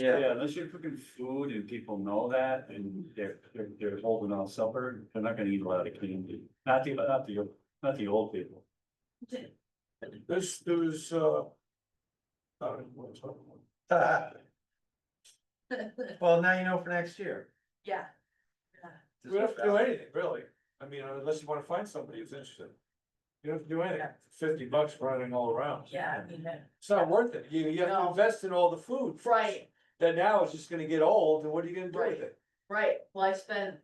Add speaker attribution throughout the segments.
Speaker 1: Yeah,
Speaker 2: Yeah, unless you're cooking food and people know that and they're, they're, they're holding on supper, they're not gonna eat a lot of candy. Not the, not the, not the old people.
Speaker 3: This, there's, uh. uh, what's up? Ah,
Speaker 1: well, now you know for next year.
Speaker 4: Yeah,
Speaker 3: We don't have to do anything, really. I mean, unless you wanna find somebody who's interested. You don't have to do anything. Fifty bucks running all around.
Speaker 4: yeah, I mean, that-
Speaker 3: It's not worth it. You, you have to
Speaker 4: No.
Speaker 3: invest in all the food.
Speaker 4: right,
Speaker 3: Then now it's just gonna get old and what are you gonna do with it?
Speaker 4: right, well, I spent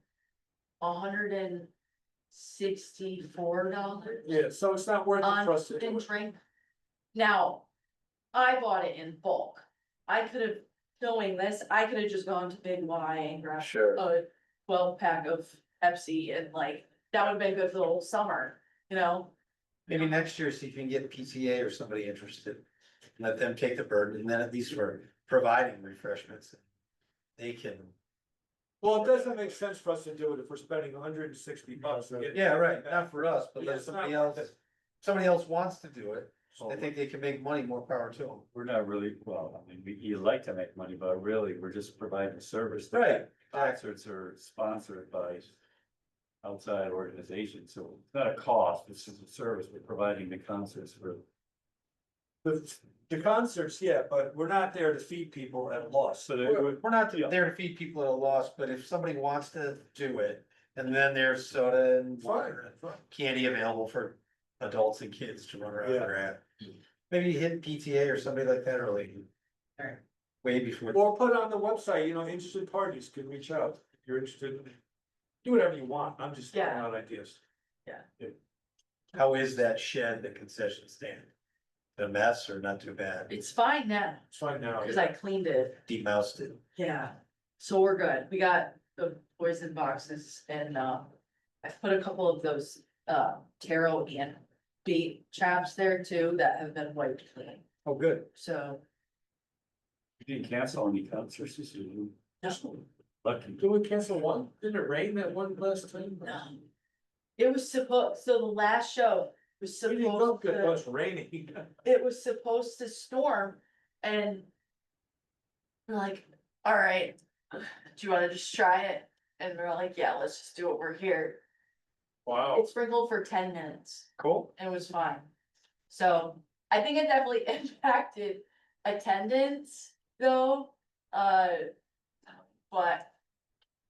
Speaker 4: a hundred and sixty-four dollars
Speaker 3: Yeah, so it's not worth it for
Speaker 4: on
Speaker 3: us to
Speaker 4: food
Speaker 3: do
Speaker 4: and
Speaker 3: it.
Speaker 4: drink. Now, I bought it in bulk, I could have, knowing this, I could have just gone to Big Y and grabbed
Speaker 1: Sure.
Speaker 4: a twelve pack of Pepsi and like, that would have been good for the whole summer, you know?
Speaker 1: Maybe next year, see if you can get PTA or somebody interested. and Let them take the burden and then at least we're providing refreshments. They can.
Speaker 3: Well, it doesn't make sense for us to do it if we're spending hundred and sixty bucks. to get-
Speaker 1: Yeah, right, not for us, but
Speaker 3: Yeah,
Speaker 1: let
Speaker 3: it's
Speaker 1: somebody
Speaker 3: not
Speaker 1: else,
Speaker 3: worth
Speaker 1: somebody else wants to do it.
Speaker 3: So
Speaker 1: I think they can make money, more power to them.
Speaker 2: We're not really, well, I mean, we, you like to make money, but really, we're just providing a service.
Speaker 1: Right.
Speaker 2: Concerts are sponsored by outside organizations, so it's not a cost, it's just a service. We're providing the concerts for.
Speaker 3: The, the concerts, yeah, but we're not there to feed people at a loss.
Speaker 2: So they
Speaker 1: We're
Speaker 2: would,
Speaker 1: we're not
Speaker 2: Yeah.
Speaker 1: there to feed people at a loss, but if somebody wants to do it, and then there's soda and water and
Speaker 3: fine.
Speaker 1: candy available for adults and kids to run around
Speaker 3: Yeah.
Speaker 1: or at. Maybe hit PTA or somebody like that early.
Speaker 4: Alright.
Speaker 1: Way before,
Speaker 3: Or put on the website, you know, interested parties can reach out, if you're interested, in do whatever you want, I'm just throwing
Speaker 4: Yeah.
Speaker 3: out ideas.
Speaker 1: how is that shed, the concession stand? A mess or not too bad?
Speaker 4: It's fine now,
Speaker 3: It's fine now.
Speaker 4: cause I cleaned it.
Speaker 1: Demoused it.
Speaker 4: Yeah, so we're good. We got the poison boxes and uh, I've put a couple of those uh taro and bait traps there too that have been wiped clean.
Speaker 1: Oh, good.
Speaker 4: So,
Speaker 2: you didn't cancel any concerts, this year.
Speaker 4: no,
Speaker 2: lucky.
Speaker 3: Did we cancel one? Didn't it rain that one last time?
Speaker 4: no. It was supposed, so the last show was
Speaker 3: We didn't go
Speaker 4: supposed
Speaker 3: good, it
Speaker 4: to,
Speaker 3: was raining.
Speaker 4: it was supposed to storm and we're like, all right, do you wanna just try it? And we're like, yeah, let's just do it. We're here.
Speaker 3: Wow.
Speaker 4: It sprinkled for ten minutes.
Speaker 1: Cool.
Speaker 4: and it was fine. So I think it definitely impacted attendance though, uh. But,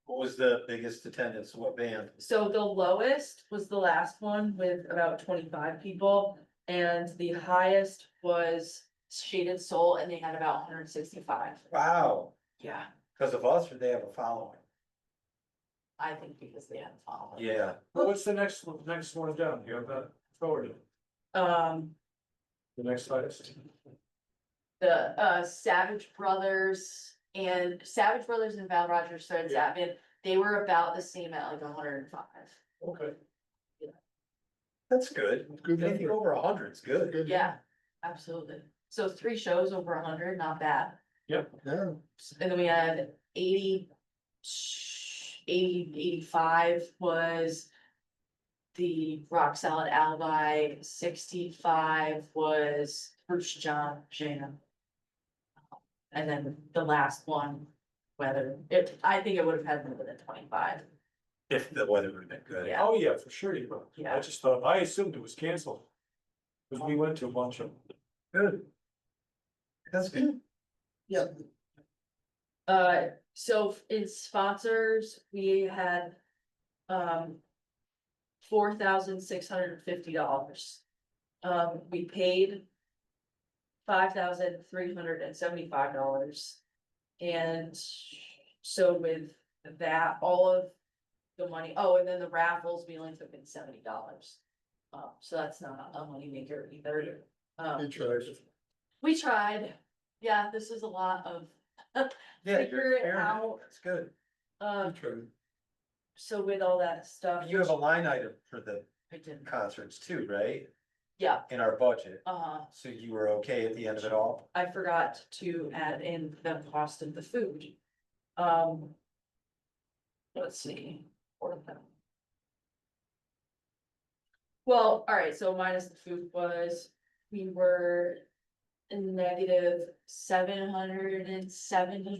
Speaker 1: What was the biggest attendance? What band?
Speaker 4: so the lowest was the last one with about twenty-five people. And the highest was Shaded Soul and they had about hundred and sixty-five.
Speaker 1: Wow,
Speaker 4: Yeah,
Speaker 1: because of us or they have a following?
Speaker 4: I think because they had a following.
Speaker 1: Yeah.
Speaker 3: What's the next, one? next one down, you have that forwarded,
Speaker 4: Um,
Speaker 3: the next highest?
Speaker 4: the uh Savage Brothers and Savage Brothers and Val Rogers started
Speaker 3: Yeah.
Speaker 4: zapping. They were about the same at like hundred and five.
Speaker 3: Okay.
Speaker 1: That's good. Anything over a hundred's good.
Speaker 4: Yeah, absolutely. So three shows over a hundred, not bad.
Speaker 1: Yeah.
Speaker 4: And then we had 80 80 85 was. The rock solid alibi, sixty-five was Bruce John Jam. And then the last one, whether, it, I think it would have had more than twenty-five.
Speaker 1: If the weather would have been good.
Speaker 4: Yeah.
Speaker 3: Oh, yeah, for sure you will. I
Speaker 4: Yeah.
Speaker 3: just thought, I assumed it was canceled. Cause we went to a bunch of.
Speaker 1: Good. That's good.
Speaker 4: Uh, so f- in sponsors, we had, um. Four thousand six hundred and fifty dollars. Um, we paid. Five thousand three hundred and seventy-five dollars. And so with that, all of the money, oh, and then the raffles, we only took in seventy dollars. Uh, so that's not a moneymaker either. Um, we tried, yeah, this is a lot of
Speaker 1: Yeah,
Speaker 4: Figure
Speaker 1: you're
Speaker 4: it
Speaker 1: experiment.
Speaker 4: out.
Speaker 1: That's good.
Speaker 4: Um, so with all that stuff.
Speaker 1: You have a line item for the
Speaker 4: I didn't,
Speaker 1: concerts too, right?
Speaker 4: yeah,
Speaker 1: In our budget.
Speaker 4: uh,
Speaker 1: So you were okay at the end of it all?
Speaker 4: I forgot to add in the cost of the food. Um. Let's see. what are them? Well, alright, so minus the food was, we were negative seven hundred and seventy